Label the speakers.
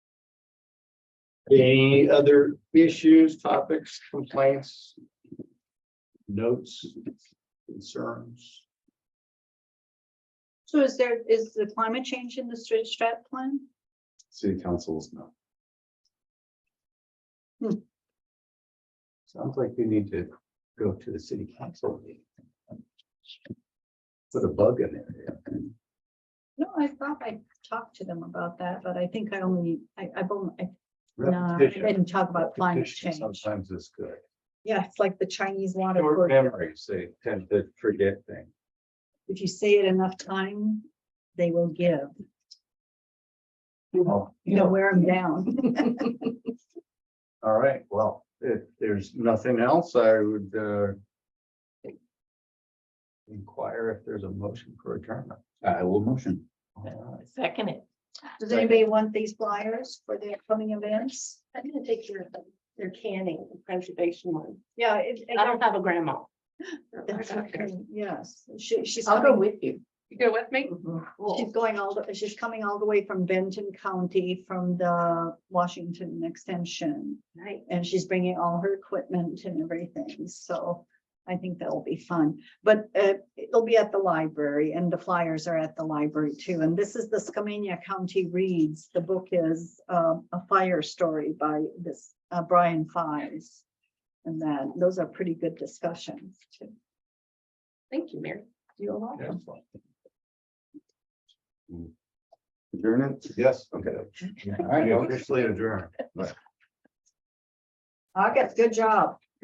Speaker 1: Any other issues, topics, complaints? Notes, concerns?
Speaker 2: So is there, is the climate change in the strat strat plan?
Speaker 3: City councils, no.
Speaker 1: Hmm. Sounds like you need to go to the city council. meeting. Put a bug in there.
Speaker 2: No, I thought I talked to them about that, but I think I only, I, I've only, I, no, I
Speaker 1: Repetition.
Speaker 2: didn't talk about climate
Speaker 1: repetition
Speaker 2: change.
Speaker 1: Sometimes is good.
Speaker 2: Yeah, it's like the Chinese water.
Speaker 1: Short
Speaker 2: torture.
Speaker 1: memories, they tend to forget things.
Speaker 2: If you say it enough time, they will give.
Speaker 1: Oh,
Speaker 2: You know, wear them down.
Speaker 1: All right, well, if there's nothing else, I would uh. Inquire if there's a motion for adjournment.
Speaker 3: I will motion.
Speaker 1: All right.
Speaker 4: Second it.
Speaker 2: Does anybody want these flyers for the upcoming events?
Speaker 4: I'm gonna take your, your canning preservation one.
Speaker 2: Yeah. it-
Speaker 4: I don't have a grandma.
Speaker 2: That's okay, Yes, she, she's.
Speaker 4: I'll go
Speaker 2: coming-
Speaker 4: with you. You go with me?
Speaker 2: She's
Speaker 4: Cool.
Speaker 2: going all, the she's coming all the way from Benton County from the Washington Extension.
Speaker 4: Nice.
Speaker 2: And she's bringing all her equipment and everything, so I think that'll be fun. But uh, it'll be at the library and the flyers are at the library too. And this is the Skamania County Reads. The book is um, a fire story by this uh, Brian Fives. And then those are pretty good discussions too.
Speaker 4: Thank you, Mary.
Speaker 2: You're welcome.
Speaker 3: Adjourn it?
Speaker 1: Yes, okay. All right, I'll just leave adjourn.
Speaker 2: August, good job.